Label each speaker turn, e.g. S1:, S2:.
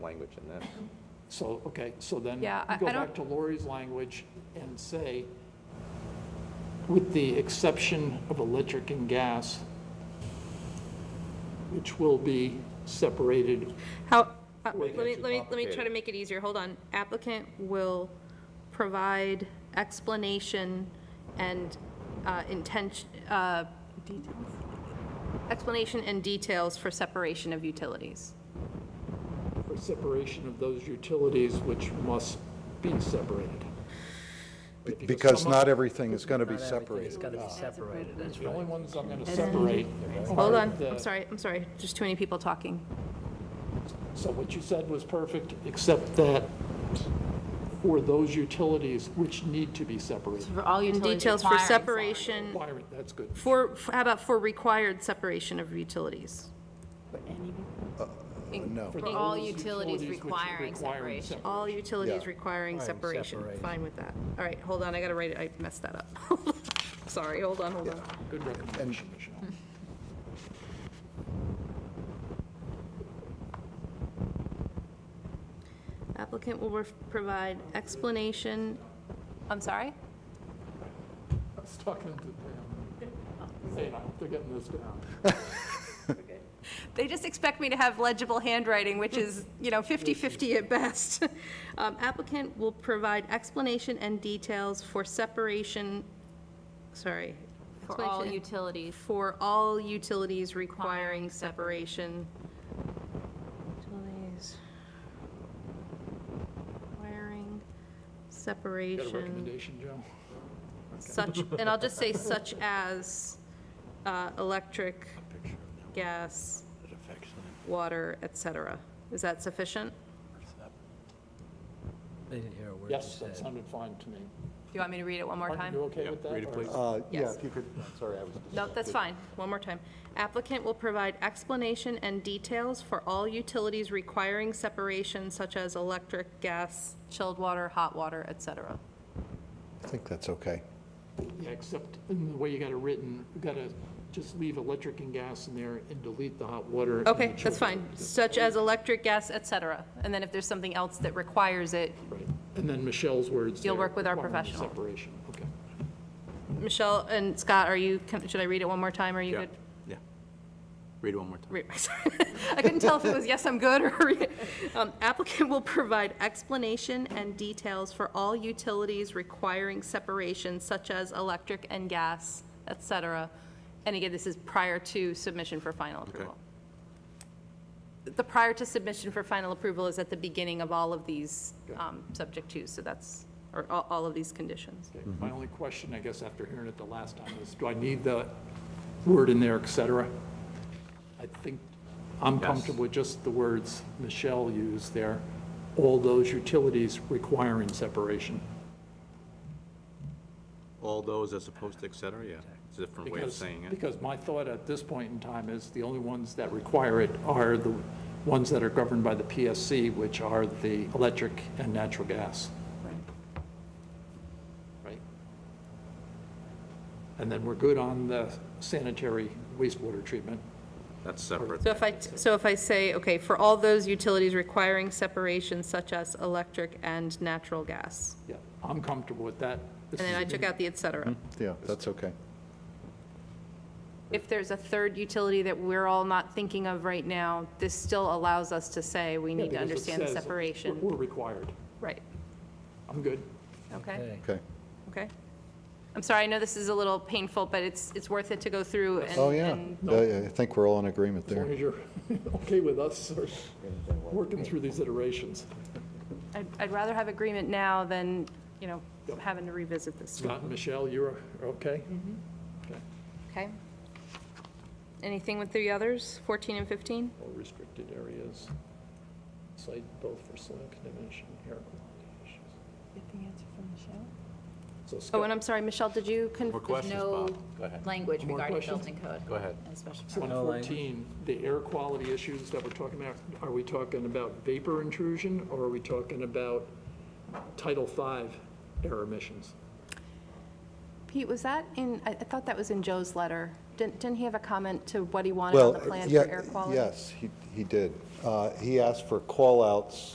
S1: language in that.
S2: So, okay, so then
S3: Yeah, I-
S2: go
S3: I
S2: back to Lori's language and say, with the exception of electric and gas, which will be separated,
S3: How, uh,
S2: Wait,
S3: let me,
S1: too
S3: let me, let me try to
S1: complicated.
S3: make it easier, hold on. Applicant will provide explanation and uh, intention, uh, explanation and details for separation of utilities.
S2: for separation of those utilities which must be separated.
S4: Be-
S2: Because
S4: Because
S2: some
S4: not everything is going to be
S5: Not everything is
S4: separated.
S5: gonna be separated, that's
S2: The only
S5: right.
S2: ones I'm going to separate.
S3: Hold
S2: are
S3: on,
S2: the-
S3: I'm sorry, I'm sorry, there's too many people talking.
S2: So what you said was perfect, except that for those utilities which need to be separated.
S6: For all
S3: And
S6: utilities
S3: details for
S6: requiring
S3: separation,
S2: Why, that's good.
S3: for, f- how about for required separation of utilities?
S4: No.
S6: For all utilities requiring separation.
S3: All utilities
S4: Yeah.
S3: requiring separation,
S5: separation.
S3: fine with that. All right, hold on, I gotta write it, I messed that up. Sorry, hold on, hold on.
S2: Good recommendation, Michelle.
S3: Applicant will ref- provide explanation. I'm sorry?
S2: I was talking to Pam, saying, I hope they're getting this down.
S3: They just expect me to have legible handwriting, which is, you know, 50/50 at best. Um, Applicant will provide explanation and details for separation, sorry.
S6: For all
S3: explanation-
S6: utilities
S3: For all utilities requiring separation. Utilities Requiring
S2: Got a
S3: separation.
S2: recommendation, Joe?
S3: such, and I'll just say such as uh, electric, gas, water, et cetera. Is that sufficient?
S5: They didn't hear a word you
S2: Yes, that
S5: said.
S2: sounded fine to me.
S3: Do you want me to read it one more
S2: Martin,
S3: time?
S2: you okay with that?
S1: read it,
S2: or-
S1: please.
S4: Uh, Yeah,
S3: Yes.
S4: if you could, sorry, I was.
S3: No, that's fine. One more time. Applicant will provide explanation and details for all utilities requiring separation such as electric, gas, chilled water, hot water, et cetera.
S4: I think that's okay.
S2: Yeah, except in the way you got it written, you got to just leave electric and gas in there and delete the hot water. and
S3: Okay,
S2: the
S3: that's
S2: children.
S3: fine. Such as electric, gas, et cetera. And then if there's something else that requires it,
S2: Right. And then Michelle's words.
S3: You'll
S2: there,
S3: work with our
S2: requiring the
S3: professional.
S2: Separation, okay.
S3: Michelle and Scott, are you, can- should I read it one more time? Are you
S7: Yeah,
S3: good?
S7: yeah. Read it one more time.
S3: Re- I couldn't tell if it was yes, I'm good, or um, applicant will provide explanation and details for all utilities requiring separation such as electric and gas, et cetera. And again, this is prior to submission for final approval. The prior to submission for final approval is at the beginning of all of these um, subject twos, so that's, or all all of these conditions.
S2: Okay, My only question, I guess, after hearing it the last time is, do I need the word in there, et cetera? I think I'm
S7: Yes.
S2: comfortable with just the words Michelle used there, all those utilities requiring separation.
S7: All those as opposed to et cetera, yeah. It's a different way of
S2: because-
S7: saying it.
S2: Because my thought at this point in time is the only ones that require it are the ones that are governed by the PSC, which are the electric and natural gas. Right? And then we're good on the sanitary wastewater treatment.
S7: That's separate.
S3: So if I, so if I say, okay, for all those utilities requiring separation such as electric and natural gas,
S2: Yeah, I'm comfortable with that.
S3: and then I took out the et cetera.
S4: Yeah, that's okay.
S3: If there's a third utility that we're all not thinking of right now, this still allows us to say we need to understand the separation.
S2: We're required.
S3: Right,
S2: I'm good.
S3: okay,
S5: Okay.
S4: Okay.
S3: okay. I'm sorry, I know this is a little painful, but it's, it's worth it to go through and.
S4: Oh, yeah.
S3: and-
S4: Yeah, yeah, I think we're all in agreement
S2: As long
S4: there.
S2: as you're okay with us or working through these iterations.
S3: I'd, I'd rather have agreement now than, you know, having to revisit this.
S2: Scott and Michelle, you're okay? Okay.
S3: Okay. Anything with the others, 14 and 15?
S2: Or restricted areas, site both for soil contamination, air quality issues. Get the answer from Michelle? So
S3: Oh, and
S2: Scott,
S3: I'm sorry, Michelle, did you, con-
S7: More
S6: There's
S7: questions,
S6: no
S7: Bob? Go ahead.
S6: language
S2: More
S6: regarding
S2: questions?
S6: building code.
S7: Go ahead.
S6: And special
S2: so on
S6: permit.
S5: No language.
S2: 14, the air quality issues that we're talking about, are we talking about vapor intrusion or are we talking about Title V air emissions?
S3: Pete, was that in, I I thought that was in Joe's letter. Did- Didn't, didn't he have a comment to what he wanted on
S4: Well,
S3: the plan
S4: yeah,
S3: for air quality?
S4: Yes, he, he did. Uh, He asked for call-outs